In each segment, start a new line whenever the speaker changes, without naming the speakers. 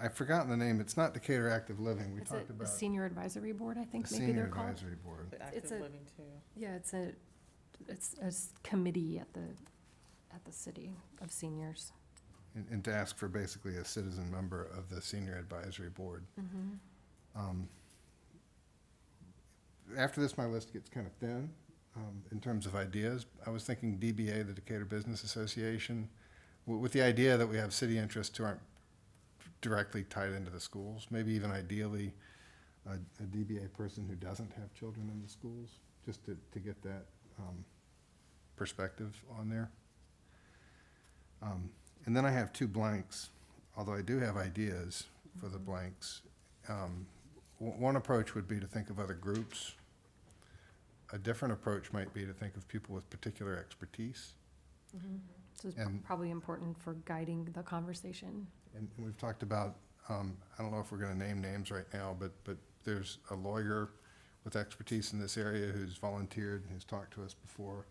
I've forgotten the name, it's not Decatur Active Living, we
It's a-
talked
a
about.
senior advisory board, I think
The
maybe
Senior
they're called.
Advisory Board.
But
It's
active
a-
living too.
Yeah, it's a, it's a s- committee at the, at the city of seniors.
and, and to ask for basically a citizen member of the senior advisory board.
Mm-hmm,
Um, After this, my list gets kind of thin, um, in terms of ideas. I was thinking DBA, the Decatur Business Association, with, with the idea that we have city interests who aren't directly tied into the schools, maybe even ideally, a, a DBA person who doesn't have children in the schools, just to, to get that, um, perspective on there. Um, and then I have two blanks, although I do have ideas for the blanks. Um, w- One approach would be to think of other groups. A different approach might be to think of people with particular expertise.
mm-hmm.
So it's
And-
probably important for guiding the conversation.
And and we've talked about, um, I don't know if we're going to name names right now, but, but there's a lawyer with expertise in this area who's volunteered, who's talked to us before.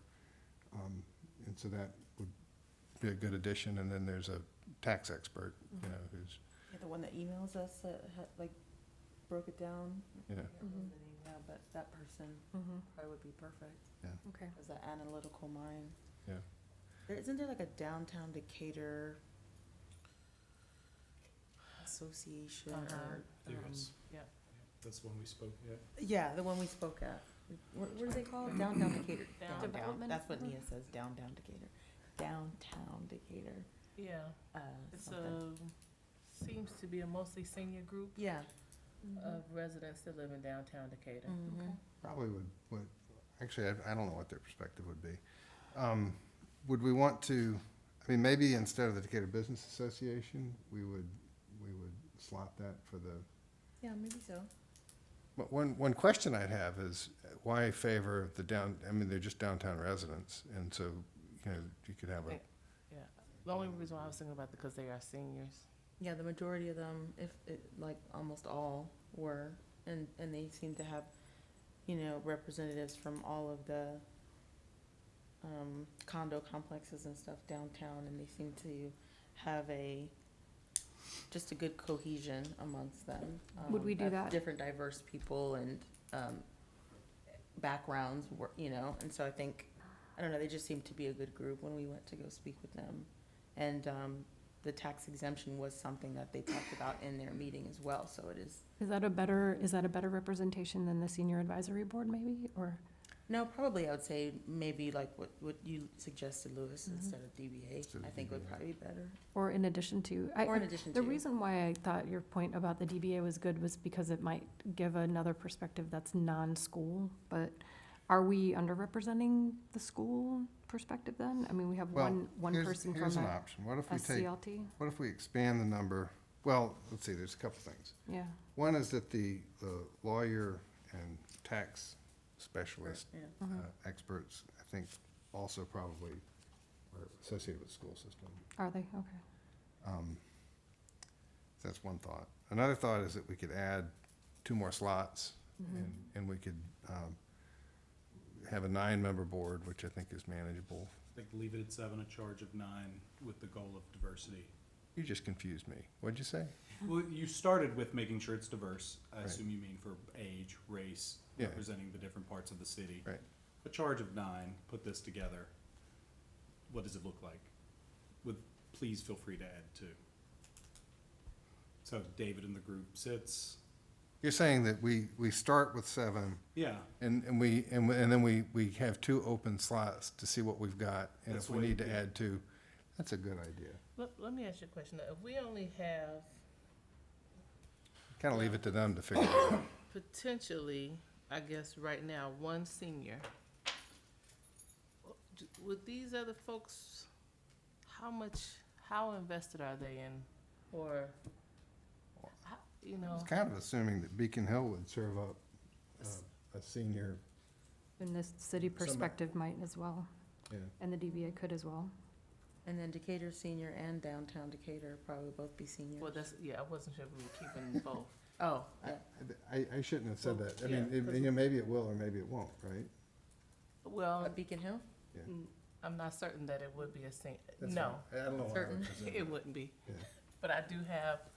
Um, And so that would be a good addition. And then there's a tax expert, you know, who's,
Yeah, the one that emails us that had, like, broke it down.
you know,
I can't remember
Mhm.
the name now, but that person probably would be perfect,
Okay.
as an analytical mind.
Yeah.
There, isn't there like a downtown Decatur association or?
There
um,
is.
Yeah.
That's the one we spoke, yeah.
Yeah, the one we spoke at. What, what are they called? Downtown Decator. Downtown.
Development?
That's what Nia says, downtown Decatur. Downtown Decatur,
Yeah,
uh,
it's
something.
a, seems to be a mostly senior group
Yeah.
Mm-hmm.
Uh,
of residents that live in downtown Decatur.
mhm.
Probably would, would, actually, I, I don't know what their perspective would be. Um, would we want to, I mean, maybe instead of the Decatur Business Association, we would, we would slot that for the,
Yeah, maybe so.
but one, one question I'd have is uh, why favor the down, I mean, they're just downtown residents, and so, you know, you could have a,
The only reason why I was thinking about it, because they are seniors.
Yeah, the majority of them, if, it- like, almost all were, and, and they seem to have, you know, representatives from all of the um, condo complexes and stuff downtown, and they seem to have a, just a good cohesion amongst them.
Would
um,
we do
of
that?
Different diverse people and um, backgrounds, were- you know, and so I think, I don't know, they just seemed to be a good group when we went to go speak with them. And um, the tax exemption was something that they talked about in their meeting as well, so it is,
Is that a better, is that a better representation than the senior advisory board maybe, or?
no, probably I would say maybe like what, what you suggested, Louis,
Mhm.
instead of DBA,
Instead of
I think would
DBA.
probably be better,
Or in addition to? I-
or in addition to.
The reason why I thought your point about the DBA was good was because it might give another perspective that's non-school, but are we underrepresenting the school perspective then? I mean, we have
Well,
one, one
here's,
person
here's
from
an
a
option. What if
a
we take,
CLT,
what if we expand the number? Well, let's see, there's a couple things.
yeah.
One is that the, the lawyer and tax specialist
Yeah.
uh,
Mhm.
experts, I think, also probably are associated with school system.
Are they? Okay.
Um, That's one thought. Another thought is that we could add two more slots, and, and we could um, have a nine-member board, which I think is manageable.
Like leave it at seven, a charge of nine with the goal of diversity.
You just confused me. What'd you say?
Well, you started with making sure it's diverse. I
Right.
assume you mean for age, race,
Yeah.
representing the different parts of the city.
Right.
A charge of nine, put this together. What does it look like? With, please feel free to add two. So David in the group sits,
You're saying that we, we start with seven,
yeah,
and, and we, and, we- and then we, we have two open slots to see what we've got, and
That's
if we
what-
need to
yeah.
add two, that's a good idea.
Let, let me ask you a question. If we only have
Kind of leave it to them to figure it out.
potentially, I guess, right now, one senior, d- would these other folks, how much, how invested are they in, or, how- you
I was
know?
kind of assuming that Beacon Hill would serve up uh, a senior,
And this city
Somebody-
perspective might as well,
yeah.
and the DBA could as well.
And then Decatur Senior and Downtown Decatur probably both be seniors.
Well, that's, yeah, I wasn't sure if we were keeping both.
Oh, yeah.
I- I, I shouldn't have said that. I
Yeah,
mean, it- you know, maybe it will or maybe it won't, right?
Well,
But Oh, Beacon Hill?
Mm, I'm not certain that it would be a sen-
That's Oh,
no,
fine. I don't know why I would presume.
it wouldn't be.
Yeah.
But I do have